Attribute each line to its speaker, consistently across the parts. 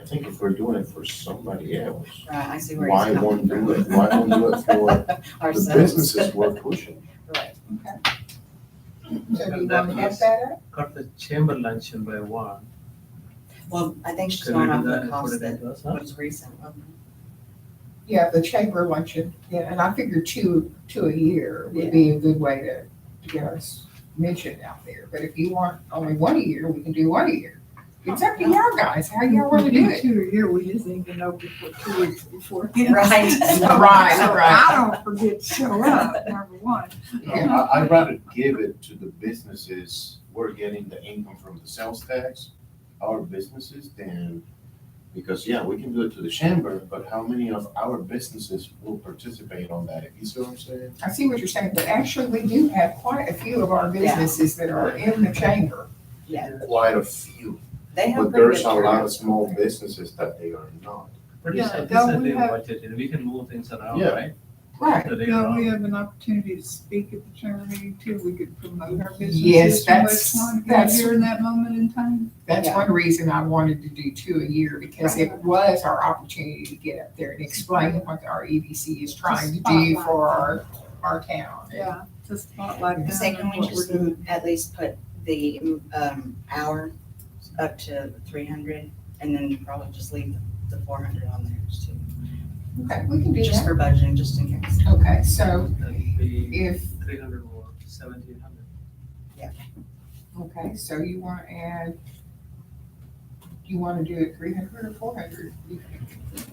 Speaker 1: I think if we're doing it for somebody else,
Speaker 2: Right, I see where
Speaker 1: why
Speaker 2: he's
Speaker 1: won't
Speaker 2: coming
Speaker 1: do
Speaker 2: from.
Speaker 1: it, why won't do it for the
Speaker 2: Ourselves.
Speaker 1: businesses we're pushing?
Speaker 2: Right.
Speaker 3: So do you
Speaker 4: And that
Speaker 3: want to have
Speaker 4: was-
Speaker 3: that up?
Speaker 4: Cut the chamber luncheon by one.
Speaker 2: Well, I think she's
Speaker 4: Can we
Speaker 2: going
Speaker 4: do
Speaker 2: off
Speaker 4: that
Speaker 2: the
Speaker 4: and put
Speaker 2: cost
Speaker 4: it
Speaker 2: that
Speaker 4: into us, huh?
Speaker 2: was recent. wasn't
Speaker 3: Yeah, the chamber luncheon, yeah, and I figured two, two a year would be a good way to, to get us mentioned out there. But if you want only one a year, we can do one a year. It's up to y'all guys, how y'all wanna do it.
Speaker 5: Two a year, we just need to know before, two weeks before.
Speaker 2: it? Right.
Speaker 3: Right,
Speaker 5: I
Speaker 3: right.
Speaker 5: don't forget to show up, number one.
Speaker 3: Yeah.
Speaker 1: I, I'd rather give it to the businesses, we're getting the income from the sales tax, our businesses, than, because, yeah, we can do it to the chamber, but how many of our businesses will participate on that? You see what I'm saying?
Speaker 3: I see what you're saying, but actually, we do have quite a few of our businesses that are in the chamber.
Speaker 2: Yeah,
Speaker 1: Quite a few,
Speaker 2: they have
Speaker 1: but
Speaker 2: pretty
Speaker 1: there's
Speaker 2: good
Speaker 1: a lot
Speaker 2: turnout.
Speaker 1: of small businesses that they are not.
Speaker 4: Pretty
Speaker 5: Yeah,
Speaker 4: sad,
Speaker 5: don't
Speaker 4: this is
Speaker 5: we
Speaker 4: the
Speaker 5: have-
Speaker 4: budget, and we can move things around,
Speaker 1: Yeah.
Speaker 4: right?
Speaker 3: Right.
Speaker 4: So they
Speaker 5: So
Speaker 4: are-
Speaker 5: we have an opportunity to speak at the chamber meeting too. We could promote our businesses.
Speaker 3: Yes,
Speaker 5: in
Speaker 3: that's-
Speaker 5: West Swan,
Speaker 3: that's-
Speaker 5: During that moment in time.
Speaker 3: That's
Speaker 2: Yeah.
Speaker 3: one reason I wanted to do two a year, because it was our opportunity to get up there and explain what our EDC is trying to do
Speaker 5: spotlight.
Speaker 3: for our, our town.
Speaker 5: Yeah, to spotlight
Speaker 2: I
Speaker 5: them
Speaker 2: Say, can
Speaker 5: and
Speaker 2: we
Speaker 5: what we're
Speaker 2: just
Speaker 5: doing.
Speaker 2: at least put the, um, hour up to three hundred and then probably just leave the four hundred on there just too.
Speaker 3: Okay, we can do
Speaker 2: Just
Speaker 3: that.
Speaker 2: for budgeting, just in case.
Speaker 3: Okay, so
Speaker 4: That'd be
Speaker 3: if,
Speaker 4: three hundred or seventeen hundred.
Speaker 3: okay, so you want to add, you want to do it three hundred or four hundred?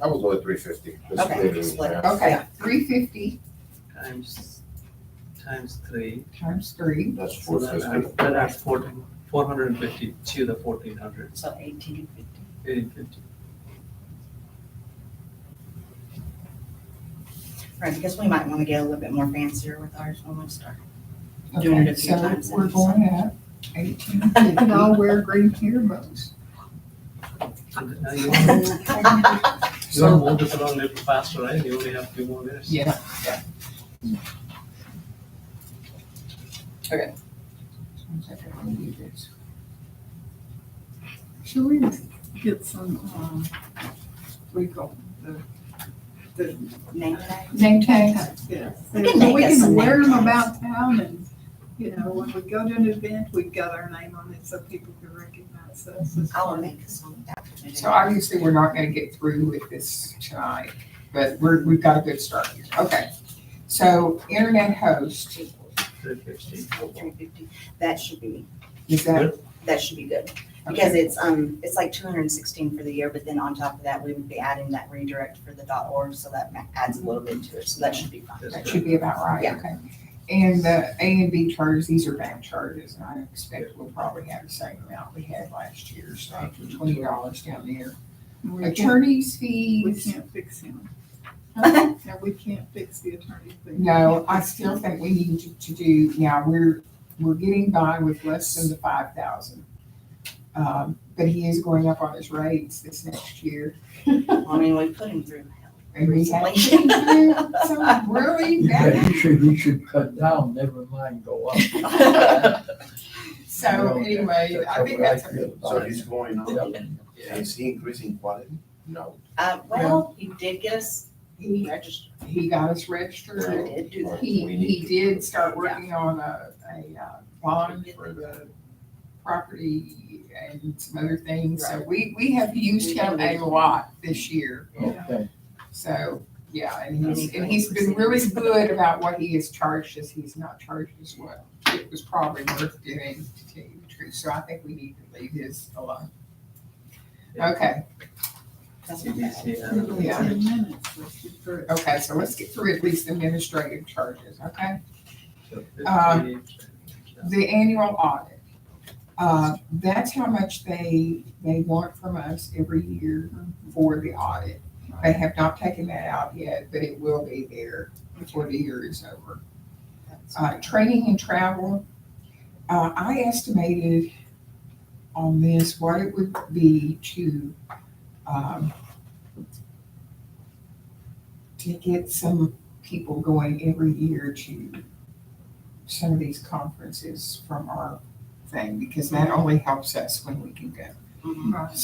Speaker 1: I would go with three fifty.
Speaker 2: Okay, split it.
Speaker 3: Okay, three fifty
Speaker 4: Times, times three.
Speaker 3: times three,
Speaker 1: That's
Speaker 4: So
Speaker 1: four
Speaker 4: that
Speaker 1: fifty.
Speaker 4: adds- That adds fourteen, four hundred and fifty to the fourteen hundred,
Speaker 2: So eighteen fifty.
Speaker 4: eighteen fifty.
Speaker 2: Right, because we might want to get a little bit more fancier with ours when we start. Doing it
Speaker 3: okay,
Speaker 2: a few
Speaker 3: so
Speaker 2: times.
Speaker 3: we're going up eighteen
Speaker 5: We can
Speaker 3: fifty.
Speaker 5: all wear green earbuds.
Speaker 4: So that- now you want, you want to move this around a little faster, right? You only have two more minutes.
Speaker 3: Yeah,
Speaker 5: Should we get some, um, we call the, the
Speaker 2: Name tag?
Speaker 3: name tags.
Speaker 5: Yes.
Speaker 2: We can make
Speaker 5: We
Speaker 2: us some
Speaker 5: can wear them
Speaker 2: name
Speaker 5: about town and, you know, when we go to an event, we've got our name on it so people can recognize us. as
Speaker 2: I will
Speaker 5: well.
Speaker 2: make us on that. committee.
Speaker 3: So obviously, we're not gonna get through with this tonight, but we're, we've got a good start here. Okay. So internet host,
Speaker 4: Three fifty.
Speaker 2: Three fifty. That should be,
Speaker 3: is that?
Speaker 2: that should be good. Because
Speaker 3: okay.
Speaker 2: it's, um, it's like two hundred and sixteen for the year, but then on top of that, we would be adding that redirect for the dot org, so that ma- adds a little bit to it, so that should be fine.
Speaker 3: That should be about right,
Speaker 2: Yeah.
Speaker 3: okay. And the A and B charges, these are bank charges, and I expect we'll probably have the same amount we had last year, so twenty dollars down there.
Speaker 5: We can't,
Speaker 3: Attorney's
Speaker 5: we
Speaker 3: fees,
Speaker 5: can't fix him.
Speaker 2: Okay.
Speaker 5: No, we can't fix the attorney thing.
Speaker 3: no, I still think we need to, to do, yeah, we're, we're getting by with less than the five thousand. Um, but he is going up on his rates this next year.
Speaker 2: I mean, we put him through hell.
Speaker 3: And we had
Speaker 2: Recently.
Speaker 3: some really bad.
Speaker 6: you should, you should cut down, never mind go up.
Speaker 3: So anyway, I think Oh, that's,
Speaker 6: That's what I feel
Speaker 1: So
Speaker 6: about
Speaker 1: he's
Speaker 6: it.
Speaker 1: going up,
Speaker 6: Yeah.
Speaker 1: is he increasing quality? No.
Speaker 2: Uh, well, he did get us
Speaker 3: he,
Speaker 2: registered,
Speaker 3: he got us
Speaker 2: he
Speaker 3: registered.
Speaker 2: did do that.
Speaker 3: He, he did start working on a, a uh, bond for the property and some other things. So we, we have used him a lot this year.
Speaker 6: Okay,
Speaker 3: So, yeah, and he's, and he's been really good about what he has charged us. He's not charged as well. It was probably worth doing, to tell you the truth. So I think we need to leave his alone. Okay.
Speaker 2: That's not bad.
Speaker 4: CDC, I don't
Speaker 5: Um,
Speaker 4: know.
Speaker 3: Yeah.
Speaker 5: Ten minutes, let's get through it.
Speaker 3: Okay, so let's get through at least administrative charges, okay?
Speaker 4: So
Speaker 3: Um,
Speaker 4: 50,
Speaker 3: The annual audit. Uh, that's how much they, they want from us every year for the audit. They have not taken that out yet, but it will be there before the year is over. Uh, training and travel, uh, I estimated on this what it would be to, um, to get some people going every year to some of these conferences from our thing, because that only helps us when we can go.
Speaker 2: Mhm.
Speaker 5: Right.